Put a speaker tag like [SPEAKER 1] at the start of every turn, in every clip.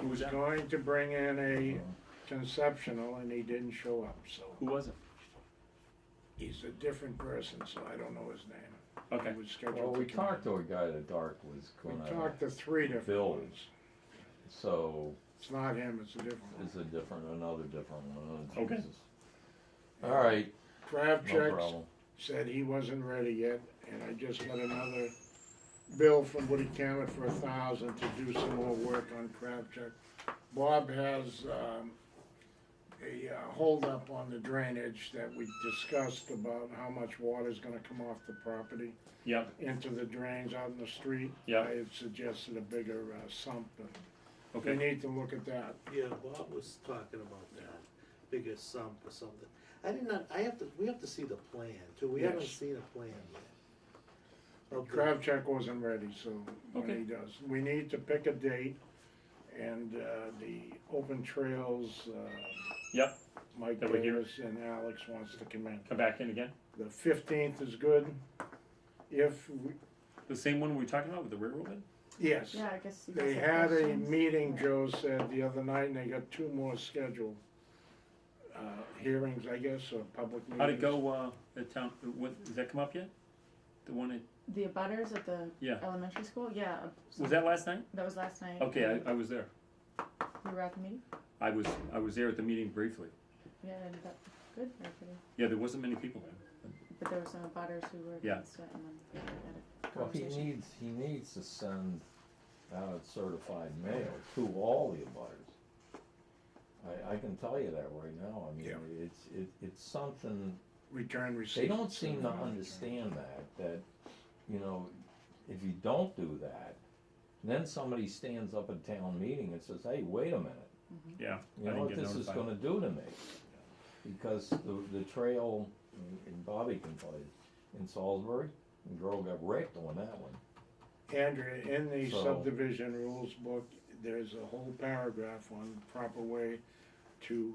[SPEAKER 1] He was out.
[SPEAKER 2] going to bring in a conceptional and he didn't show up, so.
[SPEAKER 1] Who was it?
[SPEAKER 2] He's a different person, so I don't know his name.
[SPEAKER 1] Okay.
[SPEAKER 2] He was
[SPEAKER 3] Well,
[SPEAKER 2] scheduled
[SPEAKER 3] we
[SPEAKER 2] to come.
[SPEAKER 3] talked to a guy that Dark was
[SPEAKER 2] We
[SPEAKER 3] gonna,
[SPEAKER 2] talked to three different
[SPEAKER 3] Bill.
[SPEAKER 2] ones.
[SPEAKER 3] so
[SPEAKER 2] It's not him, it's a different one.
[SPEAKER 3] it's a different, another different one. oh,
[SPEAKER 1] Okay.
[SPEAKER 3] Jesus. All right, no
[SPEAKER 2] Kravchuk
[SPEAKER 3] problem.
[SPEAKER 2] said he wasn't ready yet, and I just got another bill from Woody Cammett for a thousand to do some more work on Kravchuk. Bob has, um, a uh, holdup on the drainage that we discussed about how much water's gonna come off the property.
[SPEAKER 1] Yep.
[SPEAKER 2] into the drains out in the street.
[SPEAKER 1] Yeah.
[SPEAKER 2] I had suggested a bigger uh, sump, and we
[SPEAKER 1] Okay.
[SPEAKER 2] need to look at that.
[SPEAKER 4] Yeah, Bob was talking about that, bigger sump or something. I did not, I have to, we have to see the plan too, we haven't
[SPEAKER 2] Yes.
[SPEAKER 4] seen a plan yet. Of the-
[SPEAKER 2] Kravchuk wasn't ready, so when
[SPEAKER 1] Okay.
[SPEAKER 2] he does, we need to pick a date, and uh, the open trails, uh,
[SPEAKER 1] Yep.
[SPEAKER 2] Mike
[SPEAKER 1] That we hear.
[SPEAKER 2] Davis and Alex wants to come in.
[SPEAKER 1] Come back in again.
[SPEAKER 2] The fifteenth is good, if, we
[SPEAKER 1] The same one we were talking about with the railroad bed?
[SPEAKER 2] yes.
[SPEAKER 5] Yeah, I guess. you guys
[SPEAKER 2] They
[SPEAKER 5] have
[SPEAKER 2] had a
[SPEAKER 5] questions.
[SPEAKER 2] meeting,
[SPEAKER 5] Yeah.
[SPEAKER 2] Joe said, the other night, and they got two more scheduled, uh, hearings, I guess, or public meetings.
[SPEAKER 1] How'd it go, uh, at town, what, has that come up yet? The one at,
[SPEAKER 5] The abutters at the
[SPEAKER 1] Yeah.
[SPEAKER 5] elementary school, yeah. uh,
[SPEAKER 1] was that last night?
[SPEAKER 5] That was last night.
[SPEAKER 1] Okay, I, I was there.
[SPEAKER 5] You were at the meeting?
[SPEAKER 1] I was, I was there at the meeting briefly.
[SPEAKER 5] Yeah, ended up good, very pretty.
[SPEAKER 1] Yeah, there wasn't many people there.
[SPEAKER 5] But there were some abutters who were
[SPEAKER 1] Yeah.
[SPEAKER 5] against it and then had a
[SPEAKER 3] Well, he
[SPEAKER 5] conversation.
[SPEAKER 3] needs, he needs to send out certified mail to all the abutters. I, I can tell you that right now, I mean,
[SPEAKER 2] Yeah.
[SPEAKER 3] it's, it, it's something
[SPEAKER 2] return receipt.
[SPEAKER 3] They don't seem to understand that, that, you know, if you don't do that, then somebody stands up at town meeting and says, hey, wait a minute.
[SPEAKER 1] Yeah. I
[SPEAKER 3] You know
[SPEAKER 1] didn't
[SPEAKER 3] what
[SPEAKER 1] get
[SPEAKER 3] this is
[SPEAKER 1] notified.
[SPEAKER 3] gonna do to me? Because the, the trail, and Bobby can tell you, in Salisbury, the girl got wrecked on that one.
[SPEAKER 2] Andrea, in the
[SPEAKER 3] So-
[SPEAKER 2] subdivision rules book, there's a whole paragraph on the proper way to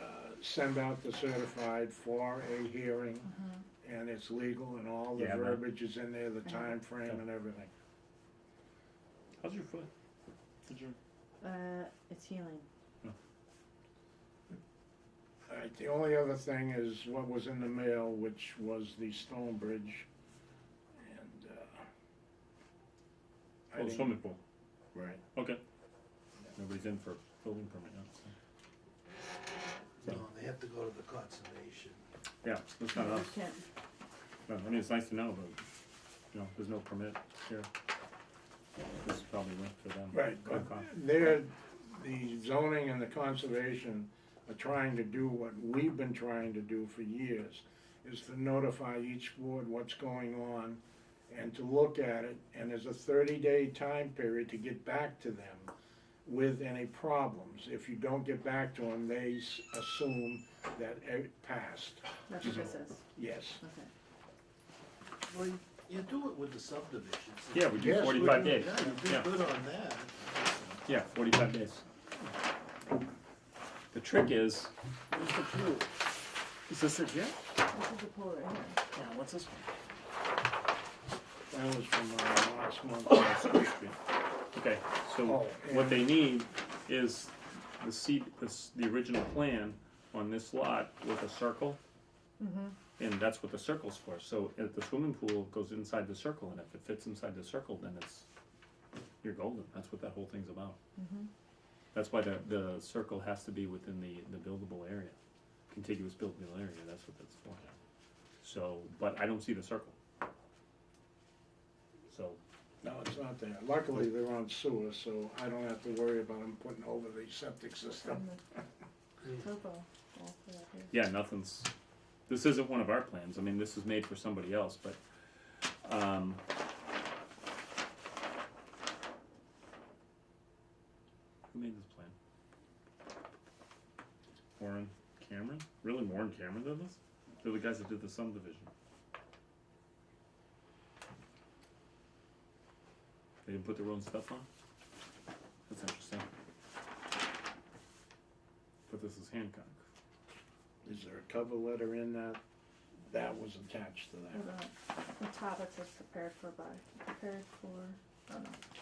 [SPEAKER 2] uh, send out the certified for a hearing, and it's legal, and all the
[SPEAKER 1] Yeah, but-
[SPEAKER 2] verbiage is in there, the time frame and everything.
[SPEAKER 1] How's your foot? Oh, Did you?
[SPEAKER 5] Uh, it's healing.
[SPEAKER 2] All right, the only other thing is what was in the mail, which was the Stone Bridge, and, uh, I
[SPEAKER 1] Oh,
[SPEAKER 2] didn't-
[SPEAKER 1] swimming pool.
[SPEAKER 2] Right.
[SPEAKER 1] Okay. Nobody's in for building permit now.
[SPEAKER 4] No, they have to go to the conservation.
[SPEAKER 1] Yeah, that's not us.
[SPEAKER 5] You can't-
[SPEAKER 1] No, I mean, it's nice to know, but, you know, there's no permit here. This is probably meant for them.
[SPEAKER 2] Right, but
[SPEAKER 1] Concom.
[SPEAKER 2] they're, the zoning and the conservation are trying to do what we've been trying to do for years, is to notify each board what's going on and to look at it, and there's a thirty-day time period to get back to them with any problems. If you don't get back to them, they s- assume that it passed,
[SPEAKER 5] That's what this is,
[SPEAKER 2] yes.
[SPEAKER 5] okay.
[SPEAKER 4] Well, you- you do it with the subdivisions.
[SPEAKER 1] Yeah, we do
[SPEAKER 2] Yes, we
[SPEAKER 1] forty-five
[SPEAKER 2] do,
[SPEAKER 1] days.
[SPEAKER 4] Yeah, you
[SPEAKER 1] Yeah.
[SPEAKER 4] did good on that.
[SPEAKER 1] Yeah, forty-five days. The trick is, where's the pool? Is this it yet?
[SPEAKER 5] This is the pool right here.
[SPEAKER 1] Yeah, what's this one?
[SPEAKER 2] That was from uh, last month.
[SPEAKER 1] Okay, so
[SPEAKER 2] Oh,
[SPEAKER 1] what
[SPEAKER 2] and-
[SPEAKER 1] they need is the seed, the, s- the original plan on this lot with a circle. And that's what the circle's for, so if the swimming pool goes inside the circle, and if it fits inside the circle, then it's, you're golden, that's what that whole thing's about. That's why the, the circle has to be within the, the buildable area, contiguous buildable area, that's what that's for. So, but I don't see the circle. So,
[SPEAKER 2] No, it's not there. Luckily, they're on sewer, so I don't have to worry about them putting over the septic system.
[SPEAKER 5] Topo. wall for that here.
[SPEAKER 1] Yeah, nothing's, this isn't one of our plans, I mean, this is made for somebody else, but, um. Who made this plan? Warren Cameron? Really, Warren Cameron did this? They're the guys that did the subdivision. They didn't put their own stuff on? That's interesting. But this is Hancock.
[SPEAKER 2] Is there a cover letter in that? That was attached to
[SPEAKER 5] Hold
[SPEAKER 2] that.
[SPEAKER 5] on. The topic was prepared for by, prepared for, oh no,